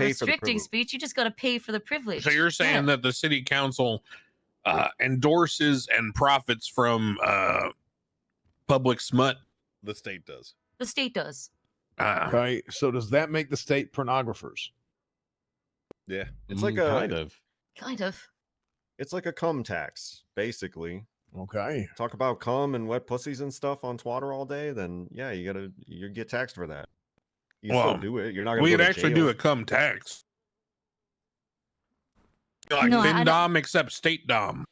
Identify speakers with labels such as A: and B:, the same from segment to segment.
A: pay for the
B: restricting
A: privilege.
B: speech. You just got to pay for the privilege.
C: So you're saying that the city council uh, endorses and profits from uh, public smut?
D: The state does.
B: the state does.
C: Uh,
E: Right. So does that make the state pornographers?
D: Yeah.
A: It's like
E: Mm,
A: a-
E: kind of.
B: Kind of.
A: It's like a cum tax, basically.
E: Okay.
A: Talk about cum and wet pussies and stuff on Twitter all day, then yeah, you gotta you get taxed for that. You can
C: Well,
A: still do it. You're not gonna.
C: we
A: go
C: could
A: to
C: actually
A: jail.
C: do a cum tax. Like
B: No, I don't-
C: FinDom except state dom.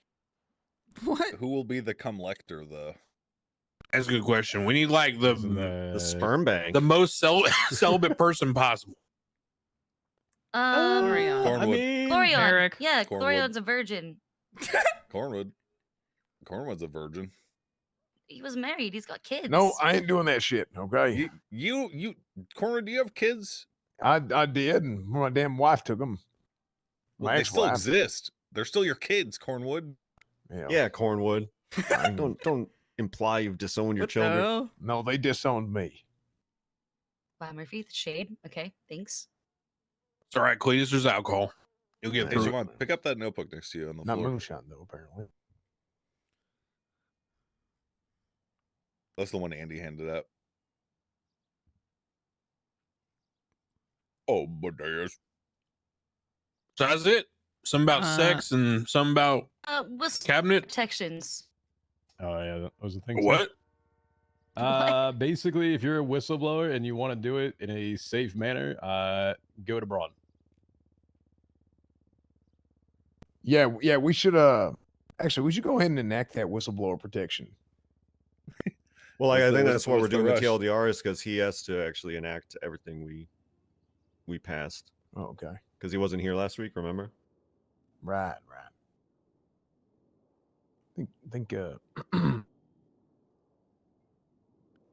B: What?
D: Who will be the cum lector though?
C: That's a good question. We need like the
E: Uh,
A: the sperm bank.
C: the most cel- celibate person possible.
B: Um, Glorion.
D: Cornwood.
B: Glorion. Yeah,
D: Cornwood.
B: Glorion's a virgin.
D: Cornwood. Cornwood's a virgin.
B: He was married. He's got kids.
E: No, I ain't doing that shit. Okay.
D: You, you, you, Cornwood, do you have kids?
E: I I did, and my damn wife took them.
D: Well,
E: My
D: they still
E: ex-wife.
D: exist. They're still your kids, Cornwood.
A: yeah, Cornwood.
E: I know.
A: Don't don't imply you've disowned your children.
E: No, they disowned me.
B: Wow, Murphy, the shade. Okay, thanks.
C: It's all right, Cletus. There's alcohol. You'll get
A: Nice.
D: Hey,
C: through. it.
D: Siobhan, pick up that notebook next to you on the
E: Not
D: floor.
E: moonshine though, apparently.
D: That's the one Andy handed out. Oh, but there's
C: So that's it. Some about
B: Uh-huh.
F: Uh,
C: sex and some about
B: Uh, we'll still
C: cabinet.
B: protections.
G: Oh yeah, that was the thing. so-
C: What?
G: Uh, basically, if you're a whistleblower and you want to do it in a safe manner, uh, go to Braun.
E: Yeah, w- yeah. We should uh, actually, we should go ahead and enact that whistleblower protection.
A: Well, like,
D: What's
A: I
D: the-
A: think
D: what's-
A: that's why we're
D: what's the
A: doing
D: rush?
A: the TLDR is because he has to actually enact everything we we passed
E: Oh, okay.
A: because he wasn't here last week. Remember?
E: Right, right. Think, think. Uh,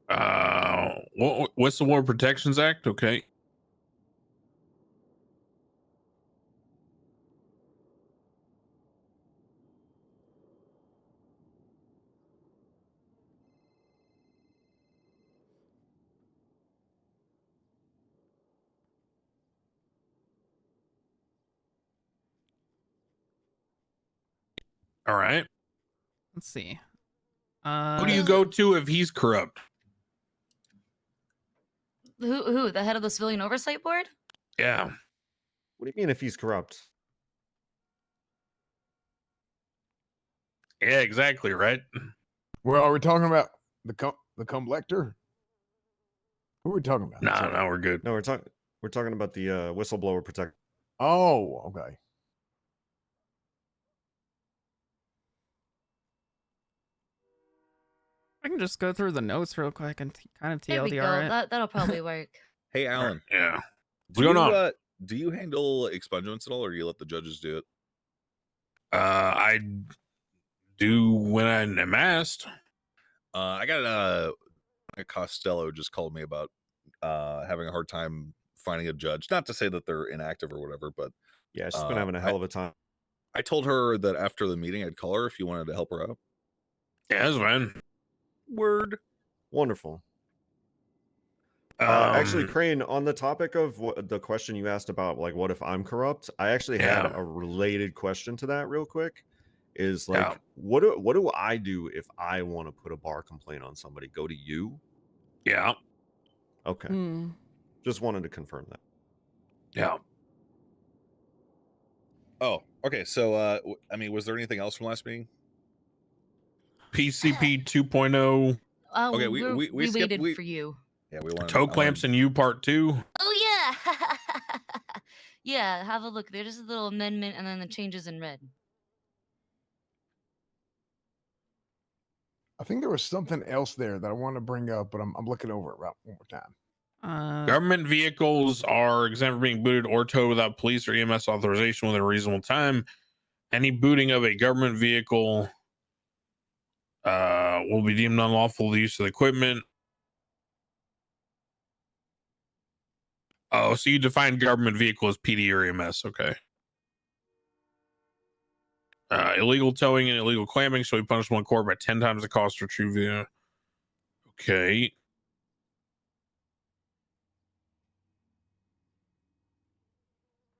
C: Uh, what, what's the War Protections Act? Okay. All right.
F: Let's see. Uh,
C: Who do you go to if he's corrupt?
B: Who? Who? The head of the civilian oversight board?
C: Yeah.
A: What do you mean if he's corrupt?
C: Yeah, exactly. Right.
E: well, are we talking about the cum, the cum lector? Who are we talking about?
C: No,
E: Sorry.
C: no, we're good.
A: No, we're talking we're talking about the uh, whistleblower protect.
E: Oh, okay.
F: I can just go through the notes real quick and t- kind of
B: There we go.
F: TLDR it.
B: That, that'll probably work.
D: hey Alan.
C: Yeah.
D: do
C: going
D: you,
C: on?
D: Uh, do you handle expungements at all, or you let the judges do it?
C: Uh, I do when I'm asked.
D: Uh, I got uh, a Costello just called me about uh, having a hard time finding a judge. Not to say that they're inactive or whatever, but
A: Yeah, she's been
D: Uh,
A: having a
D: I-
A: hell of a time.
D: I told her that after the meeting, I'd call her if you wanted to help her out.
C: Yeah, that's fine.
D: Word.
A: Wonderful. Uh,
C: Um,
A: actually, Crane, on the topic of what, the question you asked about, like, what if I'm corrupt? I actually had
C: Yeah.
A: a related question to that, real quick. Is like,
C: Yeah.
A: what do what do I do if I want to put a bar complaint on somebody? Go to you?
C: yeah,
A: Okay,
F: Hmm.
A: just wanted to confirm that.
C: yeah.
D: Oh, okay. So, uh, w- I mean, was there anything else from last meeting?
C: PCP 2.0
B: Uh,
D: Okay, we-
B: we, we're-
D: we- we skipped-
B: waited
D: we-
B: for you.
D: Yeah, we want
C: toe clamps and you part two.
B: Oh yeah. yeah. Have a look. There's a little amendment, and then the changes in red.
E: I think there was something else there that I want to bring up, but I'm, I'm looking over it right one more time.
F: Uh,
C: Government vehicles are exempt from being booted or towed without police or EMS authorization within a reasonable time. Any booting of a government vehicle uh, will be deemed unlawful the use of the equipment. Oh, so you define government vehicle as PD or EMS. Okay. Uh, illegal towing and illegal clamming shall be punishable in court by 10 times the cost for true vehicle. Okay.